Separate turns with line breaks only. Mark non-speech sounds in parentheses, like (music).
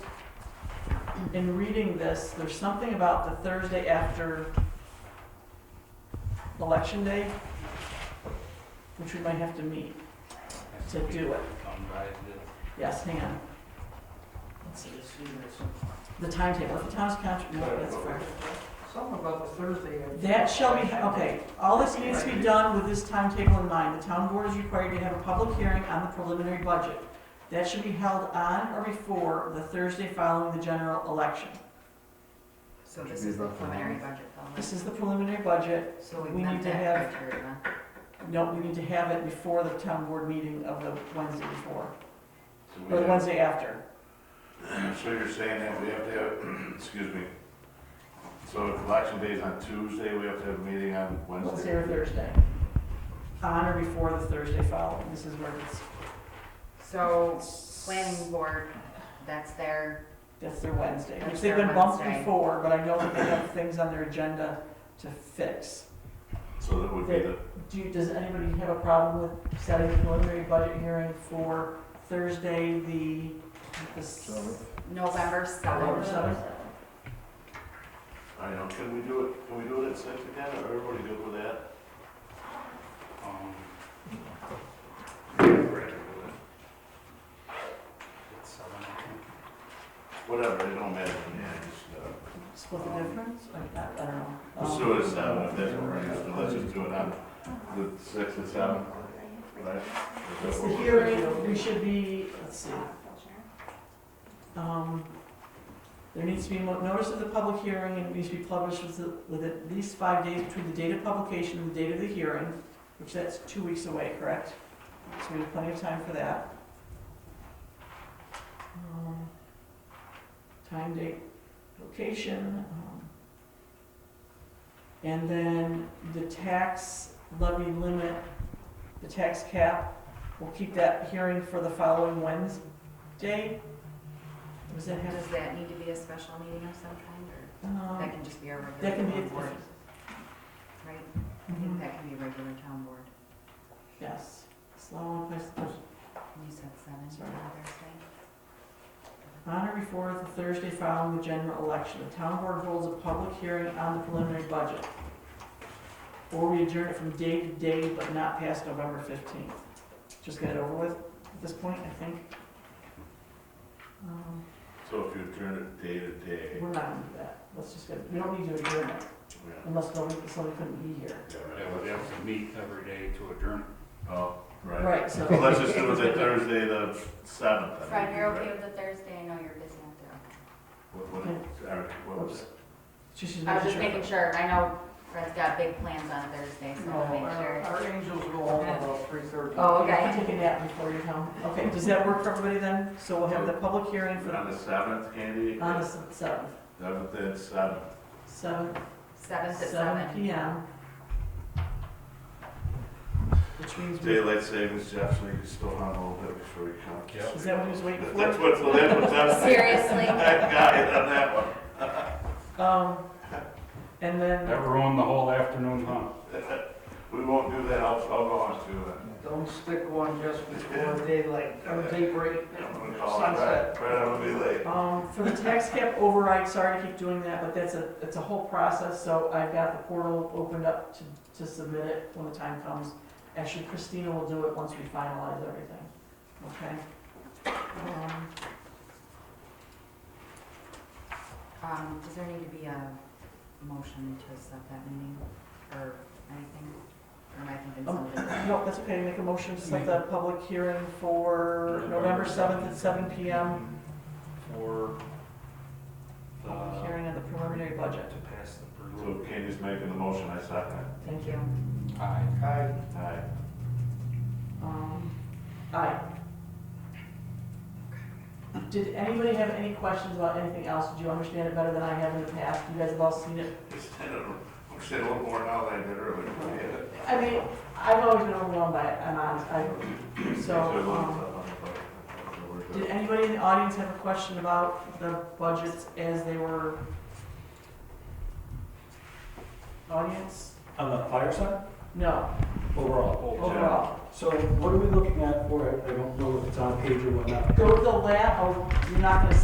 in reading this, there's something about the Thursday after election day, which we might have to meet. To do it.
Come by the-
Yes, hang on. Let's see. The timetable, the town's contract, no, that's fair.
Something about the Thursday. of-
That shall be, okay, all this needs to be done with this timetable in mind. The town board is required to have a public hearing on the preliminary budget. That should be held on or before the Thursday following the general election.
So this is the preliminary budget, though,
This is the preliminary budget,
right? so we
we need
met
to
that
have-
criteria.
no, we need to have it before the town board meeting of the Wednesday before,
So we
or the
have-
Wednesday after.
(clears throat) So you're saying that we have to have, (clears throat) excuse me, so if election day is on Tuesday, we have to have a meeting on
Wednesday
Wednesday?
or Thursday. On or before the Thursday following, this is where it's,
So, planning board, that's their,
that's their Wednesday, which
That's
they've
their
been bumped
Wednesday.
before, but I know that they have things on their agenda to fix.
So that would be the,
Do, you- does anybody have a problem with setting a preliminary budget hearing for Thursday, the, the s-
November
November
seventh.
seventh?
I know, can we do it, can we do it at six again, or everybody good with that?
um, right over there. It's seven, I think.
Whatever, it don't matter, yeah, just, uh,
Split the difference? I, I I don't know.
let's do it at seven, if that's all right, so let's just do it on the six and seven, right? Is that
It's the
what we're-
hearing, we should be, let's see. Um, There needs to be mo- notice of the public hearing, and it needs to be published with the- with at least five days between the date of publication and the date of the hearing, which that's two weeks away, correct? So we have plenty of time for that. Um, Time, date, location. um, And then the tax levy limit, the tax cap, we'll keep that hearing for the following Wednesday. Does that have
Does that need to be a special meeting of some kind, or that
um,
can just be a regular?
That can
town
be,
board, Right, I think
Mhm,
that can be regular town board,
yes. Slow and place the budget.
And you said seven,
Sorry.
on Thursday?
On or before the Thursday following the general election, the town board holds a public hearing on the preliminary budget. Or we adjourn it from day to day, but not past November fifteenth. Just get it over with at this point, I think. Um,
So if you turn it day to day,
We're not gonna do that. Let's just get, we don't need to adjourn it
yeah,
unless somebody, somebody couldn't be here.
Yeah, we have to meet every day to adjourn.
oh, right.
Right, so.
So Let's just do it that Thursday, the seventh.
Fred, you're okay with the Thursday? I know you're busy out there.
What, what, Eric, what was it?
She should
I was
make
just
sure. Oh,
making sure. I know Fred's got big plans on Thursday, so I
No,
want to make
our
sure.
Oh, our angels go home about three thirty.
Oh,
Okay, I
okay.
take a nap before you come. Okay, does that work for everybody then? So we'll have the public hearing for,
On the seventh, Andy?
on the seventh,
Seventh and seventh.
seven,
Seventh at
seven
seven.
P M. Which means, we-
Daylight savings, Jeff, so you can still hunt a little bit before you come.
Yep.
is that what he was waiting
That's
for?
what's, that's what's up.
(laughs)
Seriously?
That guy on that one.
Um, and then,
Never ruin the whole afternoon, huh?
We won't do that, I'll, I'll go on to it.
Don't stick one just before daylight, or daybreak,
I'm gonna call it,
sunset.
right, right, I'm gonna be late.
um, for the tax cap override, sorry to keep doing that, but that's a, it's a whole process. So I've got the portal opened up to, to submit it when the time comes. Actually, Christina will do it once we finalize everything, okay? Um,
Um, does there need to be a motion to set that meeting, or anything, or am I thinking
Um,
something?
No, that's okay, make a motion to set the public hearing for Mm-hmm. November 7th at 7 PM,
For the,
public
to
hearing on the preliminary budget.
pass the
So
preliminary.
Candy's making the motion, I second it.
Thank you.
Aye.
Aye.
Aye.
Um, Aye. Did anybody have any questions about anything else? Did you understand it better than I have in the past? You guys have all seen it.
Just, I'm saying a little more now than I did earlier. Yeah.
I mean, I've always been overwhelmed by it, I'm honest, I, so,
Actually, I looked
um,
up on the budget. I thought it was
did
good.
anybody in the audience have a question about the budgets as they were? Audience?
On the fire side,
No.
overall.
overall.
So what are we looking at for it? I don't know if it's on page or whatnot.
Go to the lab, oh, you're not gonna